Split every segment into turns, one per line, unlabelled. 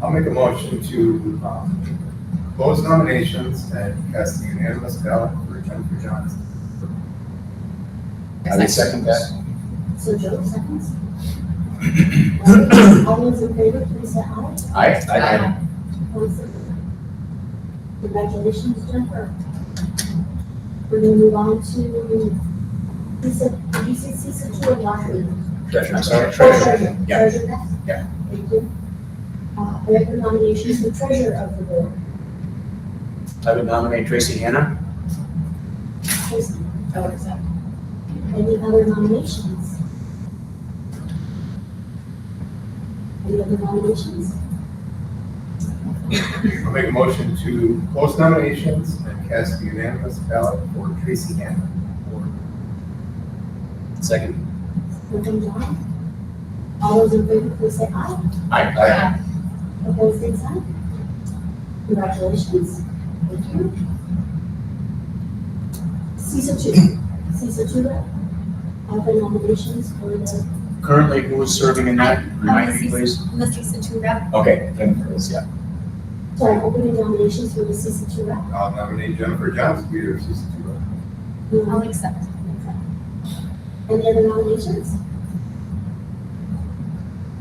I'll make a motion to um, close nominations and cast the unanimous ballot for Jennifer Johnson.
I would second that.
So Joe seconds. Uh, All those in favor, please say aye.
Aye.
Aye.
Opposed, say no. Congratulations, Jennifer. We're gonna move on to Lisa, did you say Lisa two or lottery?
Uh, Treasurer, I'm sorry,
Treasurer.
treasurer. Yeah.
Treasurer next?
Yeah.
Thank you. Uh, I make the nominations for treasurer of the board.
I would nominate Tracy Hannah.
Tracy,
I would accept.
Any other nominations? Any other nominations?
I'll make a motion to close nominations and cast the unanimous ballot for Tracy Hannah.
Second.
Moving on. All those in favor, please say aye.
Aye.
Opposed, same sign. Congratulations. Thank you. CISA two, CISA two rep. Open nominations for the,
Currently, who is serving in that? Remind me, please.
Mr. Situ Rep.
Okay, Jennifer is, yeah.
sorry, opening nominations for the CISA two rep.
I'll nominate Jennifer Johnson, leader of CC two.
Um,
I'll accept.
Any other nominations?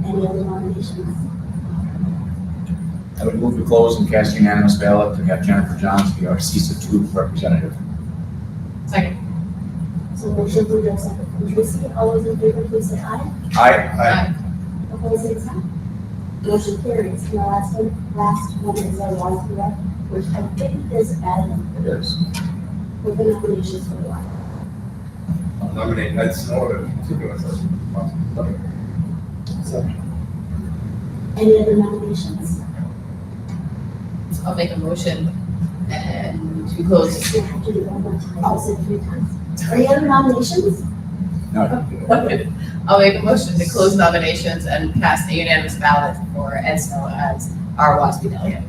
Any other nominations?
I would move to close and cast unanimous ballot to have Jennifer Johns be our CISA two representative.
Second.
So motion from Joe, second from Tracy. All those in favor, please say aye.
Aye.
Opposed, same sign. Motion carries. And the last one, last one is our last rep, which I think is Adam.
It is.
Open nominations for the last.
I'll nominate Ned Snow to continue as a possible.
Any other nominations?
I'll make a motion and to close.
We have to do one more time. I'll say three times. Any other nominations?
I'll make a motion to close nominations and cast a unanimous ballot for Ed Snow as our WASB delegate.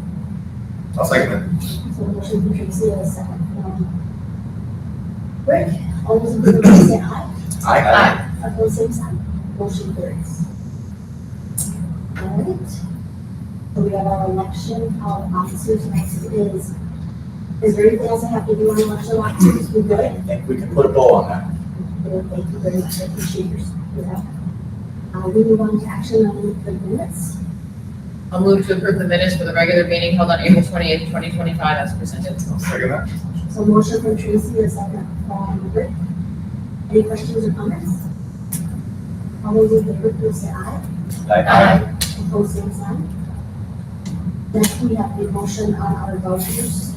I'll second
So motion from Tracy, a second from Rick. All those in favor, please say aye.
Aye.
Aye.
Opposed, same sign. Motion carries. All right. So we have our election of officers. Next is, is there anything else I have to do on election of officers? We good?
I think we can put a bow on that.
Well, Thank you very much, I appreciate your, your help. Uh, we move on to action on the minutes.
I'll move to approve the minutes for the regular meeting held on April twenty-eighth, twenty twenty-five as presented.
that. Second that?
So motion from Tracy, a second from Rick. Any questions or comments? All those in favor, please say aye.
Aye.
Opposed, same sign. Next, we have the motion on our vouchers.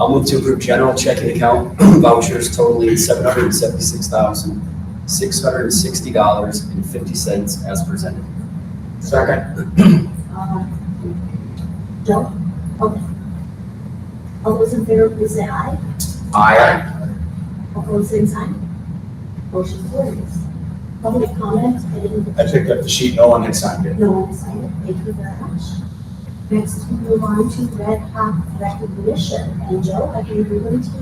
I'll move to approve general checking account vouchers totaling seven hundred and seventy-six thousand, six hundred and sixty dollars and fifty cents as presented.
Second.
Uh, Joe? Okay. All those in favor, please say aye.
Aye.
Opposed, same sign. Motion carries. Public comment, any,
I picked up the sheet, no one had signed it.
no one signed it, thank you very much. Next, we move on to Red Hawk recognition, and Joe, I can agree with you.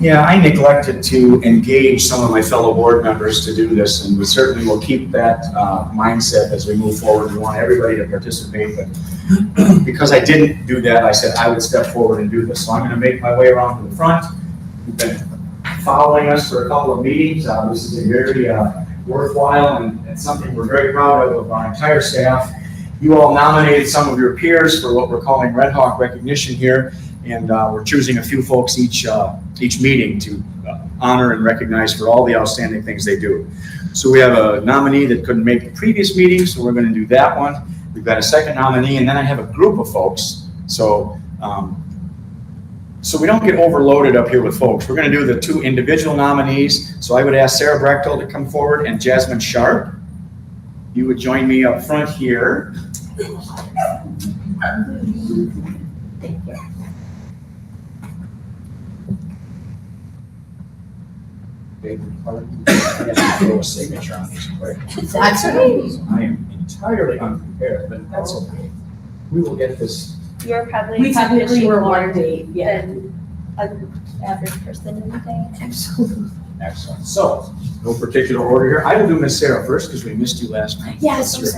Yeah, I neglected to engage some of my fellow board members to do this, and we certainly will keep that uh, mindset as we move forward. We want everybody to participate, but because I didn't do that, I said I would step forward and do this. So I'm going to make my way around to the front. You've been following us for a couple of meetings. Uh, This is a very uh, worthwhile and and something we're very proud of, of our entire staff. You all nominated some of your peers for what we're calling Red Hawk recognition here, and uh, we're choosing a few folks each uh, each meeting to uh, honor and recognize for all the outstanding things they do. So we have a nominee that couldn't make the previous meeting, so we're gonna do that one. We've got a second nominee, and then I have a group of folks, so, um, so we don't get overloaded up here with folks. We're gonna do the two individual nominees, so I would ask Sarah Brechtel to come forward and Jasmine Sharp. You would join me up front here. Big part. I have to throw a signature on this quick.
I'm sorry.
I am entirely unprepared, but that's okay. We will get this.
You're probably.
We technically were
more
one date, yeah.
Than an average person in the day.
Excellent. So, no particular order here. I will do Miss Sarah first because we missed you last night.
Yes, I'm
Sarah.